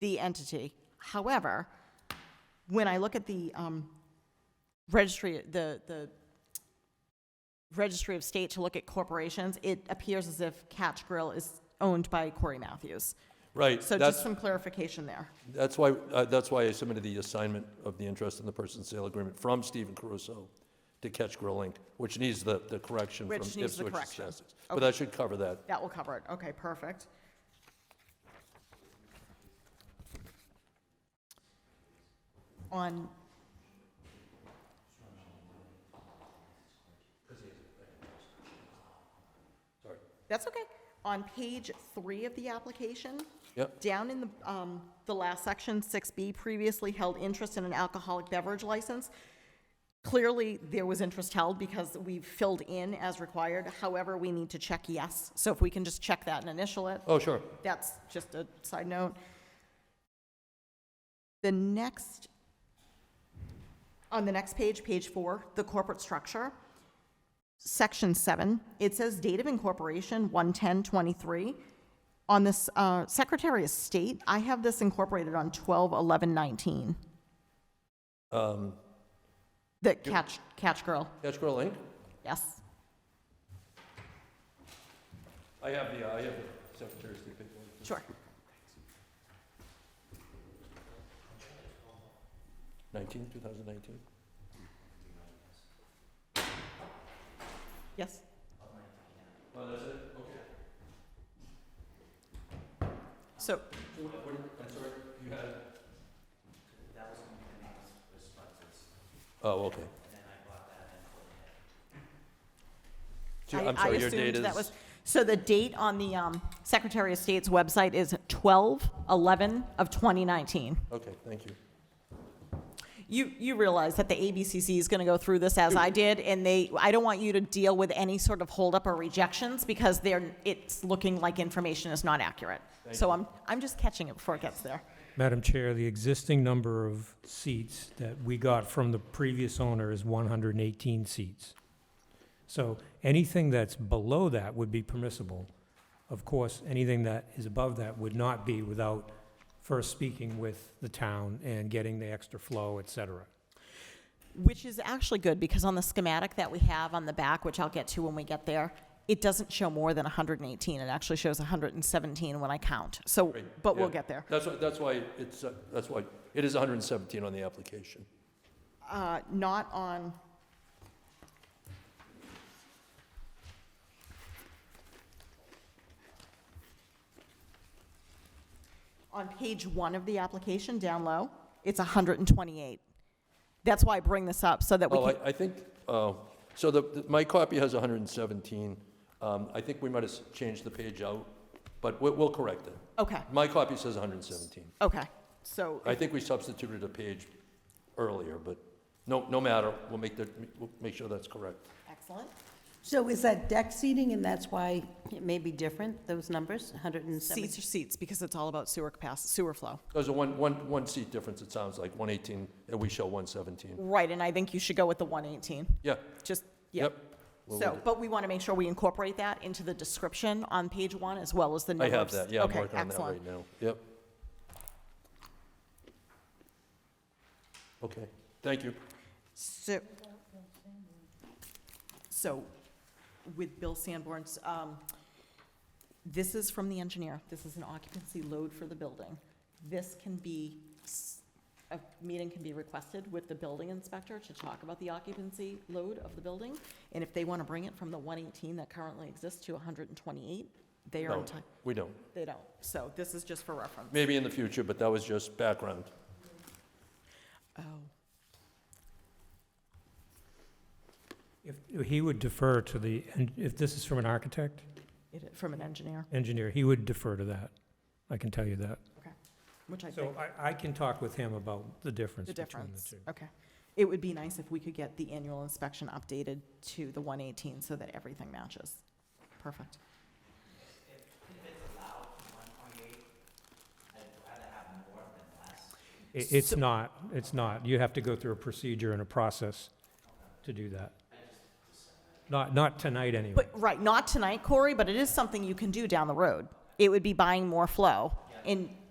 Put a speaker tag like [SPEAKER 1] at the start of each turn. [SPEAKER 1] the entity. However, when I look at the um, registry, the, the registry of state to look at corporations, it appears as if Catch Grill is owned by Corey Matthews.
[SPEAKER 2] Right,
[SPEAKER 1] So just
[SPEAKER 2] that's,
[SPEAKER 1] some clarification there.
[SPEAKER 2] that's why, uh, that's why I submitted the assignment of the interest in the person sale agreement from Stephen Caruso to Catch Grill Inc., which needs the, the correction from
[SPEAKER 1] Which
[SPEAKER 2] Ipswich
[SPEAKER 1] needs the
[SPEAKER 2] to
[SPEAKER 1] correction.
[SPEAKER 2] Sussex. But that should cover that.
[SPEAKER 1] That will cover it. Okay, perfect. On. That's okay. On page three of the application,
[SPEAKER 2] Yep.
[SPEAKER 1] down in the, um, the last section, six B, previously held interest in an alcoholic beverage license. Clearly, there was interest held because we filled in as required. However, we need to check yes. So if we can just check that and initial it,
[SPEAKER 2] Oh, sure.
[SPEAKER 1] that's just a side note. The next, on the next page, page four, the corporate structure, section seven, it says date of incorporation, one ten twenty-three. On this, uh, Secretary of State, I have this incorporated on twelve eleven nineteen,
[SPEAKER 2] Um,
[SPEAKER 1] the catch, catch girl,
[SPEAKER 2] Catch Grill Inc.?
[SPEAKER 1] yes.
[SPEAKER 2] I have the, uh, I have the Secretary of State paperwork.
[SPEAKER 1] Sure.
[SPEAKER 2] 19, 2019?
[SPEAKER 1] Yes.
[SPEAKER 2] Oh, that's it? Okay.
[SPEAKER 1] So,
[SPEAKER 2] What, what, I'm sorry, you had? That was one of the
[SPEAKER 1] I-
[SPEAKER 2] Oh, okay. So, I'm
[SPEAKER 1] I
[SPEAKER 2] sorry, your
[SPEAKER 1] assumed
[SPEAKER 2] date is?
[SPEAKER 1] that was- So the date on the um, Secretary of State's website is 12/11 of 2019.
[SPEAKER 2] Okay, thank you.
[SPEAKER 1] You, you realize that the ABCC is going to go through this as
[SPEAKER 2] Mm-hmm.
[SPEAKER 1] I did, and they, I don't want you to deal with any sort of holdup or rejections because they're, it's looking like information is not accurate. So I'm, I'm just catching it before it gets there.
[SPEAKER 3] Madam Chair, the existing number of seats that we got from the previous owner is 118 seats. So anything that's below that would be permissible. Of course, anything that is above that would not be without first speaking with the town and getting the extra flow, et cetera.
[SPEAKER 1] Which is actually good, because on the schematic that we have on the back, which I'll get to when we get there, it doesn't show more than 118, it actually shows 117 when I count, so,
[SPEAKER 2] Great,
[SPEAKER 1] but we'll
[SPEAKER 2] yeah.
[SPEAKER 1] get there.
[SPEAKER 2] That's, why- that's why it's, uh, that's why, it is 117 on the application.
[SPEAKER 1] Uh, Not on, on page one of the application, down low, it's 128. That's why I bring this up, so that we
[SPEAKER 2] Oh,
[SPEAKER 1] can,
[SPEAKER 2] I, I think, oh, so the, the- my copy has 117. Um, I think we might have s- changed the page out, but we'll, we'll correct it.
[SPEAKER 1] okay,
[SPEAKER 2] My copy says 117.
[SPEAKER 1] okay, so,
[SPEAKER 2] I think we substituted a page earlier, but no, no matter, we'll make the, we'll make sure that's correct.
[SPEAKER 1] excellent.
[SPEAKER 4] So is that deck seating, and that's why it may be different, those numbers, 170?
[SPEAKER 1] Seats are seats, because it's all about sewer capacity, sewer flow.
[SPEAKER 2] There's a one, one, one seat difference, it sounds like, 118, and we show 117.
[SPEAKER 1] Right, and I think you should go with the 118,
[SPEAKER 2] Yeah,
[SPEAKER 1] just, yeah.
[SPEAKER 2] yep. We'll
[SPEAKER 1] So,
[SPEAKER 2] do-
[SPEAKER 1] but we want to make sure we incorporate that into the description on page one, as well as the
[SPEAKER 2] I
[SPEAKER 1] numbers.
[SPEAKER 2] have that, yeah, I'm
[SPEAKER 1] Okay,
[SPEAKER 2] working on that
[SPEAKER 1] excellent.
[SPEAKER 2] right now, yep. Okay, thank you.
[SPEAKER 1] So, so with Bill Sanborn's, um, this is from the engineer. This is an occupancy load for the building. This can be, s- a meeting can be requested with the building inspector to talk about the occupancy load of the building. And if they want to bring it from the 118 that currently exists to 128, they are
[SPEAKER 2] No,
[SPEAKER 1] entitled,
[SPEAKER 2] we don't.
[SPEAKER 1] they don't. So this is just for reference.
[SPEAKER 2] Maybe in the future, but that was just background.
[SPEAKER 1] Oh,
[SPEAKER 3] If, he would defer to the, and if this is from an architect,
[SPEAKER 1] it- from an engineer,
[SPEAKER 3] engineer, he would defer to that. I can tell you that.
[SPEAKER 1] which I think.
[SPEAKER 3] So I, I can talk with him about the difference
[SPEAKER 1] The
[SPEAKER 3] between the
[SPEAKER 1] difference,
[SPEAKER 3] two.
[SPEAKER 1] okay. It would be nice if we could get the annual inspection updated to the 118 so that everything matches. Perfect.
[SPEAKER 3] I- It's not, it's not. You have to go through a procedure and a process to do that. Not, not tonight, anyway.
[SPEAKER 1] But, right, not tonight, Corey, but it is something you can do down the road. It would be buying more flow. And